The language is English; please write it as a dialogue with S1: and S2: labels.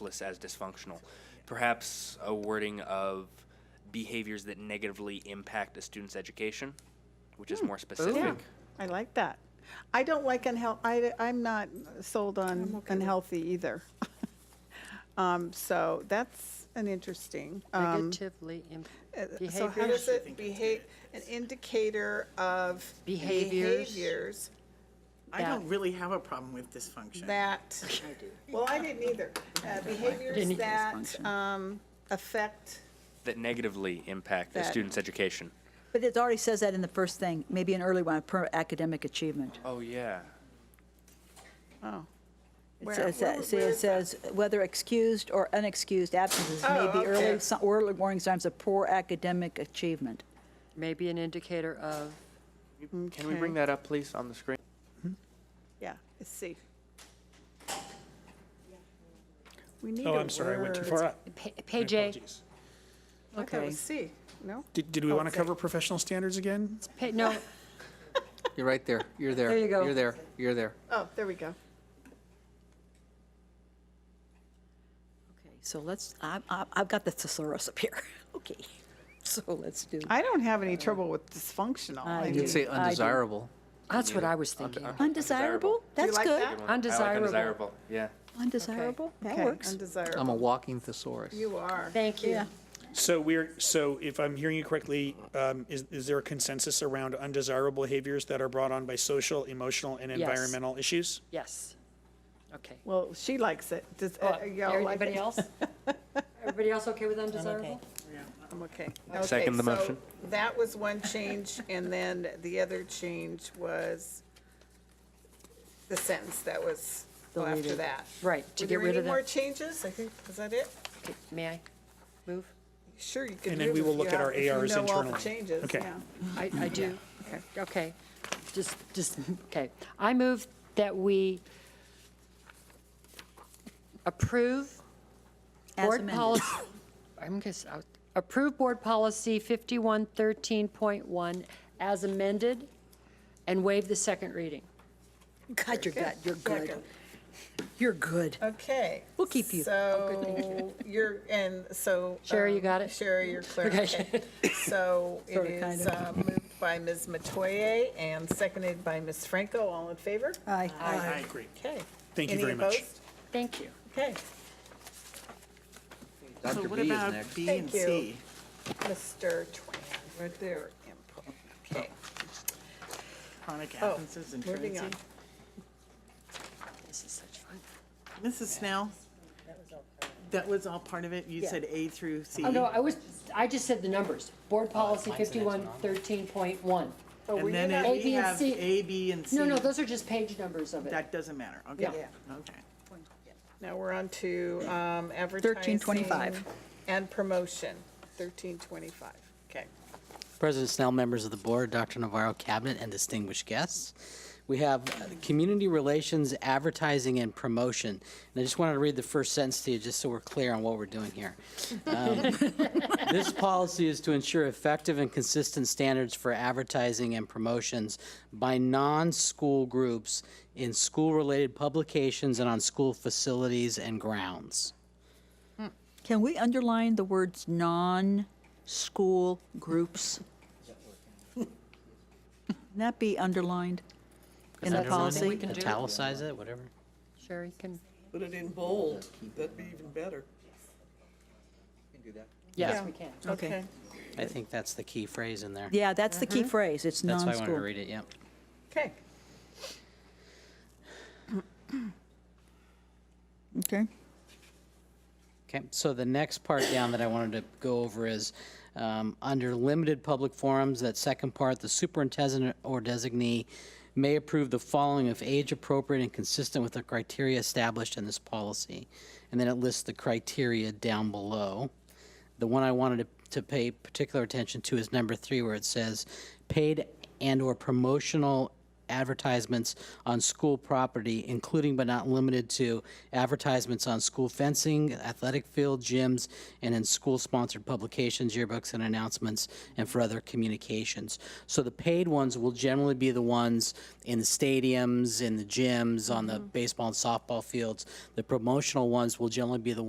S1: list as dysfunctional. Perhaps a wording of behaviors that negatively impact a student's education, which is more specific.
S2: Yeah, I like that. I don't like unheal, I, I'm not sold on unhealthy either. Um, So that's an interesting. um,
S3: Negatively imp-
S2: uh, So how does
S3: behaviors.
S2: it behave, an indicator of
S3: Behaviors.
S2: behaviors
S4: I don't
S3: that-
S4: really have a problem with dysfunction.
S2: that, well, I didn't either. Uh, Behaviors
S3: Didn't
S2: that um, affect,
S1: That negatively impact a
S2: That-
S1: student's education.
S5: But it already says that in the first thing, maybe an early one, per academic achievement.
S1: Oh, yeah.
S2: oh.
S5: It
S2: Where-
S5: says,
S2: where-
S5: see,
S2: where
S5: it
S2: is that?
S5: says whether excused or unexcused absences may
S2: Oh,
S5: be
S2: okay.
S5: early, si- or early warning signs of poor academic achievement.
S3: maybe an indicator of,
S1: Can we bring that up, please, on the screen?
S2: Yeah, let's see. We need a
S6: Oh, I'm sorry, I went too
S2: word.
S6: far up.
S3: Pa-
S6: My
S3: page eight,
S6: apologies.
S2: I thought it
S5: Okay.
S2: was C, no?
S6: Did, did we want to
S2: Okay.
S6: cover professional standards again?
S3: pa- no,
S7: You're right there. You're there.
S5: There you go.
S7: You're there. You're there.
S2: Oh, there we go.
S5: Okay, so let's, I, I, I've got the thesaurus up here. Okay, so let's do.
S2: I don't have any trouble with dysfunctional. I
S5: I
S7: You
S2: mean,
S7: can say
S5: I do.
S7: undesirable.
S3: that's what I was thinking.
S5: Undesirable? That's
S2: like
S5: good.
S2: that?
S1: I like
S3: Undesirable.
S1: undesirable. Yeah.
S5: Undesirable? That
S2: okay,
S5: works.
S2: Undesirable.
S7: I'm a walking thesaurus.
S2: You are.
S3: Thank you.
S6: So we're, so if I'm hearing you correctly, um, is, is there a consensus around undesirable behaviors that are brought on by social, emotional, and environmental issues?
S3: Yes. Okay.
S2: Well, she likes it. Does, uh, y'all like
S3: Everybody
S2: it?
S3: Oh, else? Everybody else okay with undesirable?
S2: I'm okay.
S1: Second the
S2: Okay, so
S1: motion.
S2: That was one change, and then the other change was the sentence that was well, after
S5: Deleted.
S2: that.
S3: Right, to get
S2: Were there
S3: rid
S2: any
S3: of that.
S2: more changes? I think, is that it?
S3: Okay, May I move?
S2: Sure, you can
S6: And then
S2: move
S6: we will
S2: if
S6: look
S2: you
S6: at our
S2: have- if you
S6: ARs
S2: know all the
S6: internally.
S2: changes,
S6: Okay.
S2: yeah.
S3: I, I do. Okay, just, just, okay. I move that we approve
S5: As
S3: board
S5: amended.
S3: policy, I'm uh, guess, I'll- approve board policy 5113.1 as amended and waive the second reading.
S5: God, you're good, you're good.
S2: Second.
S5: You're good.
S2: Okay.
S5: We'll keep you.
S2: So you're, and so.
S3: Sherry, you
S2: um,
S3: got it?
S2: Sherry, you're clear. Okay. So it
S5: Sorta, kinda.
S2: is uh, moved by Ms. Matoye and seconded by Ms. Franco. All in favor?
S5: Aye.
S6: I agree.
S2: Okay.
S6: Thank you
S2: Any
S6: very much.
S2: opposed?
S3: Thank you.
S2: Okay,
S7: Dr.
S4: So what
S7: B is
S4: about
S7: next.
S4: B and
S2: Thank you.
S4: C?
S2: Mr. Tran, right there. input. Okay,
S4: Chronic
S2: Oh,
S4: absences and
S2: moving on.
S4: truancy.
S3: This is such fun.
S4: Mrs. Snell? That was all part of it? You said A through C?
S3: Oh, no, I was, I just said the numbers. Board policy 5113.1.
S2: Oh, were
S4: And
S2: you
S4: then
S2: not-
S3: A,
S4: if
S3: B,
S4: we
S3: and
S4: have
S3: C.
S4: A, B, and C,
S3: No, no, those are just page numbers of it.
S4: that doesn't matter. Okay,
S3: Yeah.
S4: okay.
S2: Now we're on to um, advertising.
S5: 1325.
S2: And promotion, 1325. Okay.
S8: President Snell, members of the board, Dr. Navarro, cabinet, and distinguished guests. We have uh, Community Relations, Advertising, and Promotion. And I just wanted to read the first sentence to you, just so we're clear on what we're doing here. Um, This policy is to ensure effective and consistent standards for advertising and promotions by non-school groups in school-related publications and on school facilities and grounds.
S5: Can we underline the words non-school groups? Can that be underlined in the policy?
S3: can do it.
S8: Italicize it, whatever.
S3: Sherry can,
S9: Put it in bold, that'd be even better.
S3: yes, we can.
S5: Okay.
S8: I think that's the key phrase in there.
S5: Yeah, that's the key phrase, it's
S8: That's why I wanted to
S5: non-school.
S8: read it, yep.
S2: Okay.
S5: Okay.
S8: Okay, so the next part down that I wanted to go over is, um, under limited public forums, that second part, the superintendent or designee may approve the following if age-appropriate and consistent with the criteria established in this policy. And then it lists the criteria down below. The one I wanted to, to pay particular attention to is number three, where it says, paid and/or promotional advertisements on school property, including but not limited to advertisements on school fencing, athletic field, gyms, and in school-sponsored publications, yearbooks, and announcements, and for other communications. So the paid ones will generally be the ones in the stadiums, in the gyms, on the baseball and softball fields. The promotional ones will generally be the